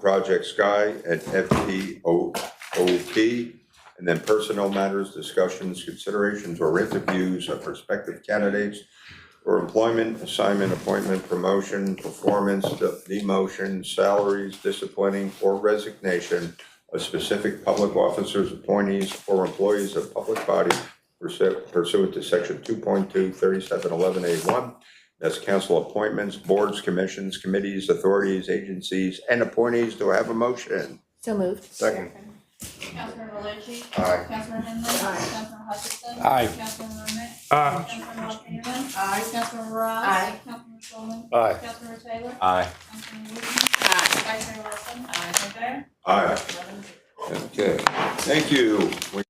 Project Sky at FPOOP. And then personnel matters, discussions, considerations, or interviews of prospective candidates for employment, assignment, appointment, promotion, performance, de- demotion, salaries, disciplining, or resignation of specific public officers, appointees, or employees of public body pursu- pursuant to section 2.2, 3711A1. That's council appointments, boards, commissions, committees, authorities, agencies, and appointees. Do I have a motion? So moved. Second. Councilman Belushi? Aye. Councilman Henry? Councilman Hutchinson? Aye. Councilman Remick? Aye. Councilman Lawson? Aye. Councilman Ross? Aye. Councilman Shulman? Aye. Councilman Taylor? Aye. Councilman Wooten? Aye. Vice Mayor Wilson? Aye. Aye. Okay. Okay, thank you. We